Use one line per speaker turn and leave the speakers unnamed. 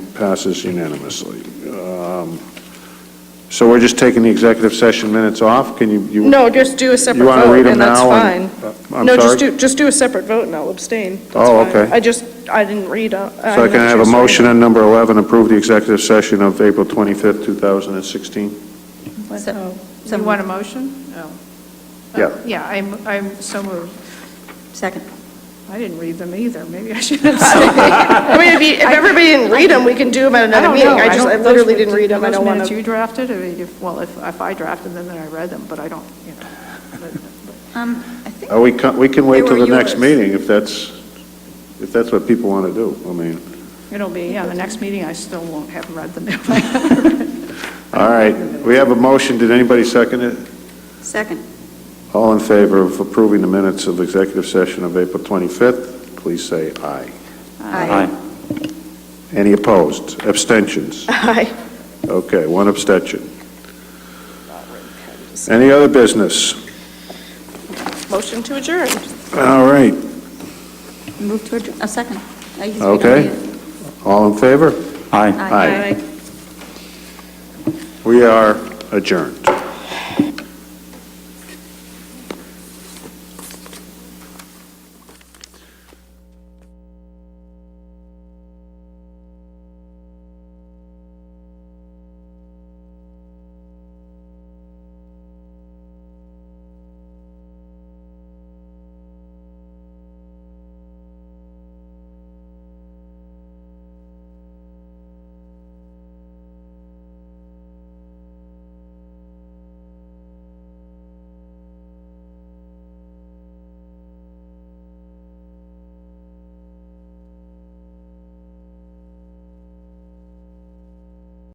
passes unanimously. Um, So we're just taking the executive session minutes off? Can you, you,
No, just do a separate
you want to read
vote,
them
and that's
now?
fine.
fine. I'm
No, just
sorry?
do, just do a separate vote, and I'll abstain. That's
Oh,
fine.
okay.
I just, I didn't read, uh, I'm
So I
not
can have a
sure, sorry.
motion on number 11, approve the executive session of April 25th, 2016?
So-
So you want a motion? Oh.
Yeah.
Yeah, I'm, I'm so moved.
Second.
I didn't read them either, maybe I should have said.
I mean, if you, if everybody didn't read them, we can do them at another
don't
meeting.
know.
I just,
don't-
I
those
literally
were-
didn't read them, I don't want
Those minutes you
to.
drafted, or if, well, if, if I drafted them, then I read them, but I don't, you know. but-
Um, I think,
Uh, We can, we can wait
They
till
were
the next
yours.
meeting if that's, if that's what people want to do. I mean,
It'll be, yeah, the next meeting, I still won't have read them.
all right, we have a motion, did anybody second it?
second.
All in favor of approving the minutes of executive session of April 25th, please say aye.
Aye.
Any opposed? Abstentions?
Aye.
Okay, one abstention. Any other business?
Motion to adjourn.
All right,
Move to adjourn, a second. I usually don't
okay.
do it.
All in favor?
Aye.
We are adjourned.